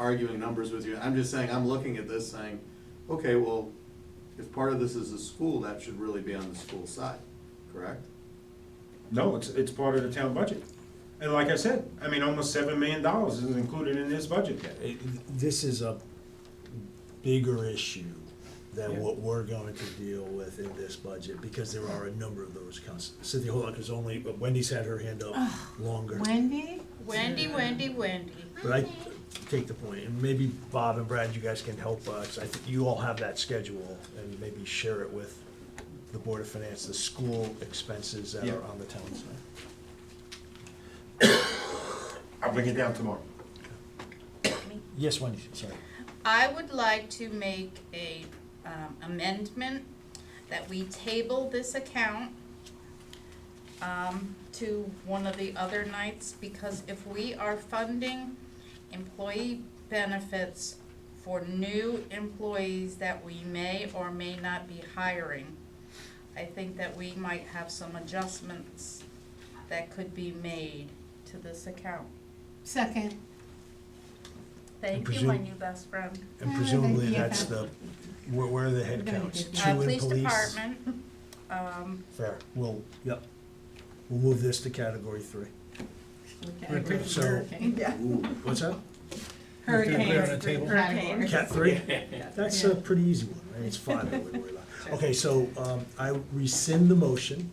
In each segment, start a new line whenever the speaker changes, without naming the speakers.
arguing numbers with you, I'm just saying, I'm looking at this saying, okay, well, if part of this is a school, that should really be on the school side, correct?
No, it's, it's part of the town budget. And like I said, I mean, almost seven million dollars is included in this budget.
it- this is a bigger issue
Yeah.
than what we're going to deal with in this budget, because there are a number of those cons, Cynthia Holock is only, but Wendy's had her hand up longer.
Wendy?
Wendy, Wendy, Wendy.
But I take the point, and maybe Bob and Brad, you guys can help us, I think you all have that schedule, and maybe share it with the Board of Finance, the school expenses that
Yeah.
are on the town side.
I'll bring it down tomorrow.
Yes, Wendy, sorry.
I would like to make a um, amendment that we table this account um, to one of the other nights, because if we are funding employee benefits for new employees that we may or may not be hiring, I think that we might have some adjustments that could be made to this account.
Second.
Thank you, my
presume-
new best friend.
And
Uh,
presumably
yeah.
that's the, where, where are the head
gonna
counts?
do
Two
Uh,
in
police department, um,
Fair, we'll, yep, we'll move this to category three.
Hurricane.
So-
Yeah.
What's that?
Hurricane. Hurricane.
Cat three? That's a pretty easy one, right? It's five I would worry about. Okay, so, um, I rescind the motion,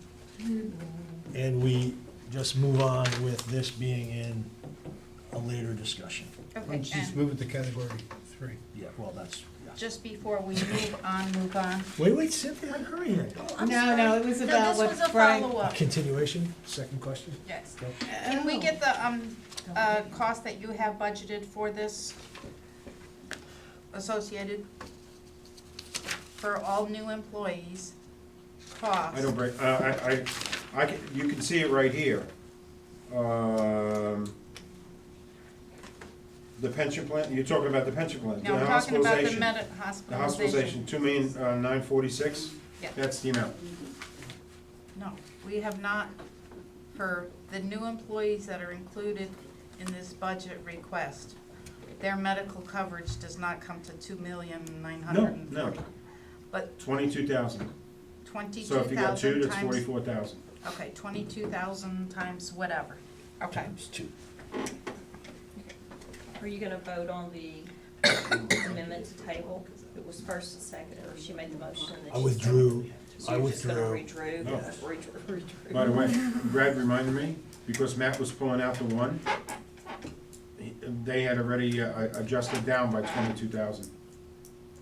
and we just move on with this being in a later discussion.
okay,
Why don't you just
and
move it to category three?
Yeah, well, that's, yeah.
just before we move on, move on.
Wait, wait, Cynthia, hurry here.
No, no, it was
Oh, No,
about
this
what
was a
Brian-
follow-up.
Continuation, second question?
Yes.
Go.
Can we get the, um, uh, cost that you have budgeted for this associated for all new employees? Cost.
I don't bring, uh, I, I, I can, you can see it right here. Um, The pension plan, you're talking about the pension plan, the
Now, we're talking about the
hospitalization.
med,
The hospitalization, two million, uh, nine forty-six,
Yeah.
that's the amount.
No, we have not, for the new employees that are included in this budget request, their medical coverage does not come to two million nine
No,
hundred and
no,
forty. But
twenty-two thousand.
twenty-two
So if you
thousand
got
times.
two, that's forty-four thousand.
Okay, twenty-two thousand times whatever, okay.
Times two.
Are you gonna vote on the amendment to table? It was first and second, or she made the motion and then
I
she
withdrew,
seconded.
I
So
withdrew.
you're just gonna redrew,
No.
redrew, redrew.
By the way, Brad reminded me, because Matt was pulling out the one, he- they had already uh, adjusted down by twenty-two thousand.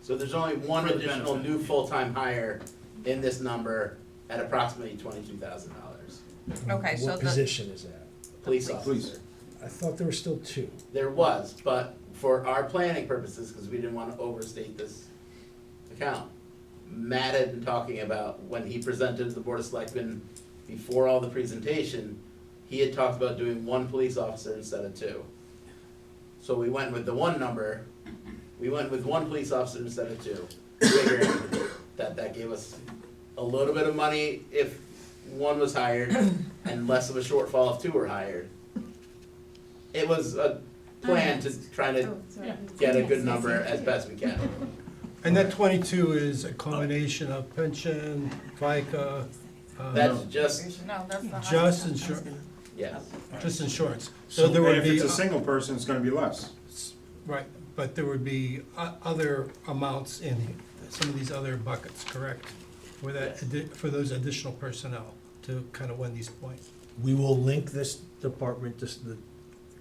So there's only one
For the
additional
benefit.
new full-time hire in this number at approximately twenty-two thousand dollars.
Okay, so
What
the-
position is that?
Police
Police.
officer.
I thought there were still two.
There was, but for our planning purposes, because we didn't want to overstate this account, Matt had been talking about when he presented to the Board of Selectmen before all the presentation, he had talked about doing one police officer instead of two. So we went with the one number, we went with one police officer instead of two, figuring that that gave us a little bit of money if one was hired and less of a shortfall if two were hired. It was a plan to try
Oh,
to get a good number as best we can.
And that twenty-two is a combination of pension, FICA, uh,
That's just,
No, that's the
just
hospital.
insurance,
yes.
just insurance.
So
So there would
if
be,
it's a single person, it's gonna be less.
right, but there would be o- other amounts in some of these other buckets, correct? For that, addi- for those additional personnel, to kind of Wendy's point.
We will link this department, this, the,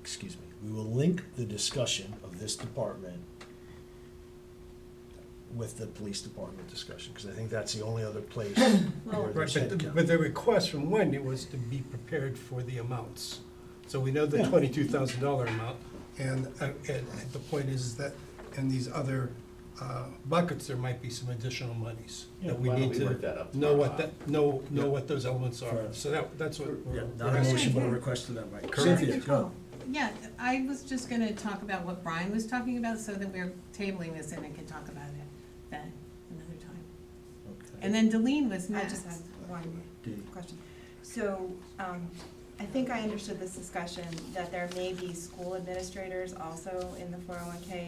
excuse me, we will link the discussion of this department with the police department discussion, because I think that's the only other place where
Right,
there's
but the-
headcount.
but the request from Wendy was to be prepared for the amounts. So we know the
Yeah.
twenty-two thousand dollar amount, and, uh, and the point is that in these other uh, buckets, there might be some additional monies.
Yeah,
That we
why don't
need
we work that
to
up
know what
tomorrow?
that, know, know what those elements are,
Fair.
so that, that's what.
Yeah,
we're-
not a motion, but a request to that, Mike. Cynthia, go.
Yeah, I was just gonna talk about what Brian was talking about, so that we're tabling this and I can talk about it then, another time.
Okay.
And then Delene was
I just
next.
have one
Dee.
question. So, um, I think I understood this discussion, that there may be school administrators also in the four oh one K